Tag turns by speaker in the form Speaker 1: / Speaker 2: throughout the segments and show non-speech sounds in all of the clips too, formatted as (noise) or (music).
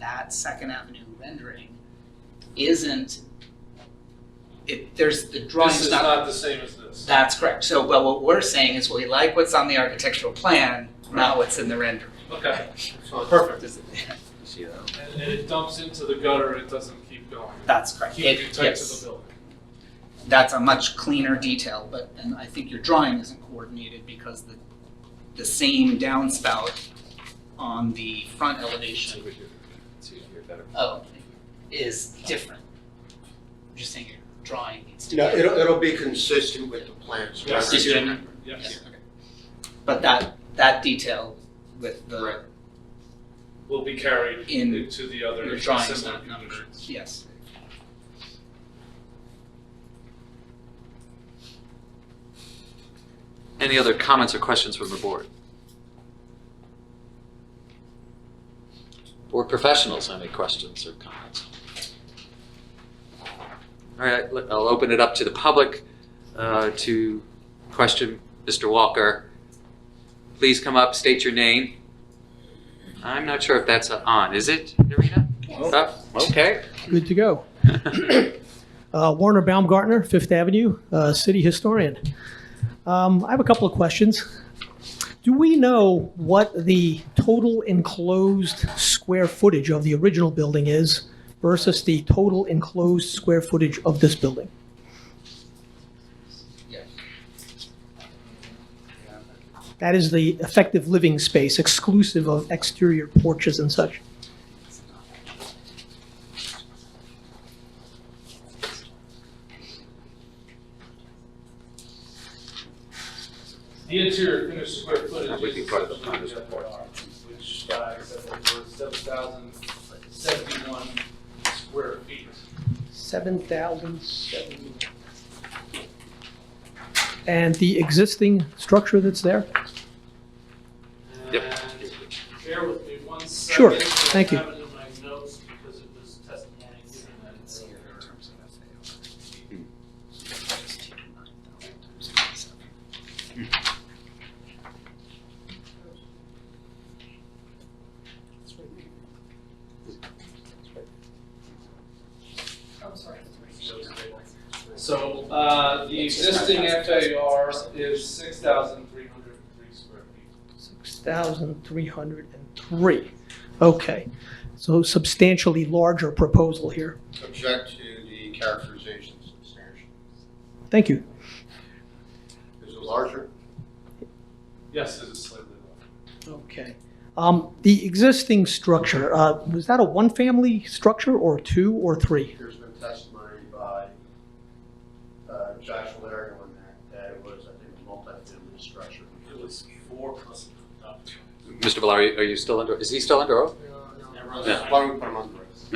Speaker 1: that Second Avenue rendering isn't, it, there's, the
Speaker 2: This
Speaker 1: drawing's
Speaker 2: is
Speaker 1: not,
Speaker 2: not the same as this.
Speaker 1: that's correct. So, but what we're saying is we like what's on the architectural plan, not what's in the render.
Speaker 2: Okay, perfect.
Speaker 1: Does it-
Speaker 3: See that?
Speaker 2: And, and it dumps into the gutter, it doesn't keep going.
Speaker 1: (laughs) That's correct.
Speaker 2: Keep it
Speaker 1: It-
Speaker 2: tight to
Speaker 1: yes.
Speaker 2: the building.
Speaker 1: that's a much cleaner detail, but, and I think your drawing isn't coordinated because the, the same downspout on the front elevation,
Speaker 3: Language here. It's easier, better.
Speaker 1: oh, is different. I'm just saying your drawing needs to be.
Speaker 4: No, it'll, it'll be consistent with the plans.
Speaker 2: Yes.
Speaker 1: Did you-
Speaker 4: Right.
Speaker 2: Yes,
Speaker 1: Yeah, okay. But that, that detail with
Speaker 2: Right.
Speaker 1: the,
Speaker 2: will be carried
Speaker 1: In-
Speaker 2: into the other
Speaker 1: your drawing's
Speaker 2: similar
Speaker 1: not numbered,
Speaker 2: conditions.
Speaker 1: yes.
Speaker 3: Any other comments or questions from the board? Board professionals, any questions or comments? All right, let- I'll open it up to the public uh, to question Mr. Walker. Please come up, state your name. I'm not sure if that's on, is it, Narita? Oh, (laughs) Okay.
Speaker 5: Good to go. Uh, Warner Baumgartner, Fifth Avenue, uh, city historian. Um, I have a couple of questions. Do we know what the total enclosed square footage of the original building is versus the total enclosed square footage of this building? That is the effective living space exclusive of exterior porches and such.
Speaker 2: The interior finished square footage
Speaker 3: We can
Speaker 2: is
Speaker 3: cut
Speaker 2: set
Speaker 3: it
Speaker 2: below
Speaker 3: on this
Speaker 2: the other
Speaker 3: report.
Speaker 2: R, which uh, said that it was seven thousand seventy-one square feet.
Speaker 5: 7,070. And the existing structure that's there?
Speaker 3: Yep.
Speaker 2: And Bear with me one second.
Speaker 5: Sure,
Speaker 2: I
Speaker 5: thank you.
Speaker 2: have it in my notes because it was testimony given at
Speaker 1: It's here in
Speaker 2: earlier.
Speaker 1: terms of FAR.
Speaker 3: Hmm.
Speaker 1: Just take 9,000 times 27.
Speaker 2: So, uh, the
Speaker 1: It's just
Speaker 2: existing
Speaker 1: 9,000.
Speaker 2: FAR is six thousand three hundred and three square feet.
Speaker 5: 6,303. Okay, so substantially larger proposal here.
Speaker 4: Object to the characterization substantial.
Speaker 5: Thank you.
Speaker 4: Is it larger?
Speaker 2: Yes, it is slightly larger.
Speaker 5: Okay. Um, The existing structure, uh, was that a one-family structure or two or three?
Speaker 4: There's been testimony by uh, Joshua Larry on that, that it was, I think, a multifamily structure.
Speaker 2: It was four plus. uh,
Speaker 3: Mr. Valari, are you still under, is he still under oath?
Speaker 2: Yeah.
Speaker 4: Why don't we put them on the rest?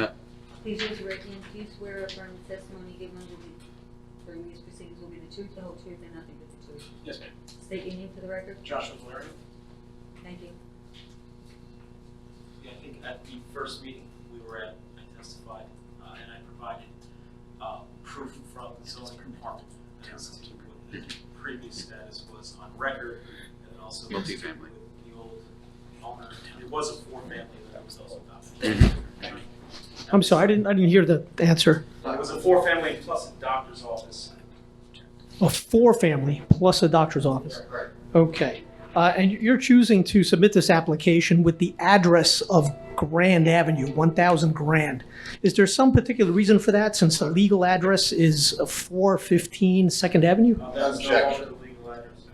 Speaker 6: Please raise your right hand. Do you swear or affirm the testimony given will be, during these proceedings will be the truth, the whole truth, and nothing but the truth?
Speaker 2: Yes, ma'am.
Speaker 6: State your name for the record.
Speaker 2: Joshua Valerian?
Speaker 6: Thank you.
Speaker 7: Yeah, I think at the first meeting we were at, I testified, uh, and I provided, uh, proof from the zoning department as to what the previous status was on record, and then also.
Speaker 3: Multifamily.
Speaker 7: The old owner, there was a four-family that was also
Speaker 4: Mm-hmm.
Speaker 7: adopted.
Speaker 3: Mhm.
Speaker 5: I'm sorry, I didn't, I didn't hear the answer.
Speaker 7: It was a four-family plus a doctor's office.
Speaker 5: A four-family plus a doctor's office.
Speaker 4: Right.
Speaker 5: Okay. Uh, And you're choosing to submit this application with the address of Grand Avenue, 1,000 Grand. Is there some particular reason for that, since the legal address is 415 Second Avenue?
Speaker 7: Uh, That's no
Speaker 4: Objection.
Speaker 7: longer the legal address.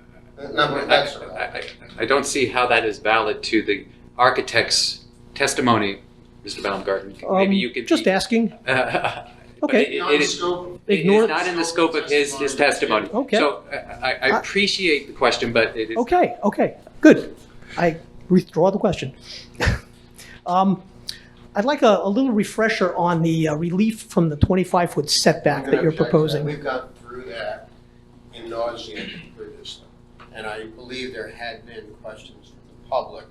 Speaker 4: No, but that's all right.
Speaker 3: I- I- I don't see how that is valid to the architect's testimony, Mr. Baumgarten.
Speaker 5: Um,
Speaker 3: Maybe you could.
Speaker 5: Just
Speaker 3: be-
Speaker 5: asking.
Speaker 3: (laughs) But
Speaker 5: Okay.
Speaker 3: it-
Speaker 4: Not
Speaker 3: it
Speaker 4: in
Speaker 3: is-
Speaker 4: scope.
Speaker 3: it is
Speaker 5: Ignore-
Speaker 3: not in the scope of his, his testimony.
Speaker 5: Okay.
Speaker 3: So I- I, I
Speaker 5: I-
Speaker 3: appreciate the question, but it is.
Speaker 5: Okay, okay, good. I withdraw the question. (laughs) Um, I'd like a a little refresher on the uh, relief from the 25-foot setback
Speaker 4: I'm
Speaker 5: that
Speaker 4: gonna
Speaker 5: you're
Speaker 4: object to
Speaker 5: proposing.
Speaker 4: We've gone through that in nausea through this stuff. And I believe there had been questions from the public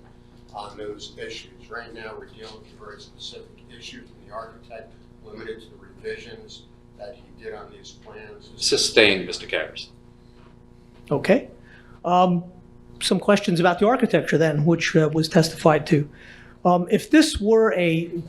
Speaker 4: on those issues. Right now, we're dealing with very specific issues and the architect limited to the revisions that he did on these plans.
Speaker 3: Sustained, Mr. Karas.
Speaker 5: Okay. Um, Some questions about the architecture then, which uh, was testified to. Um, If this were a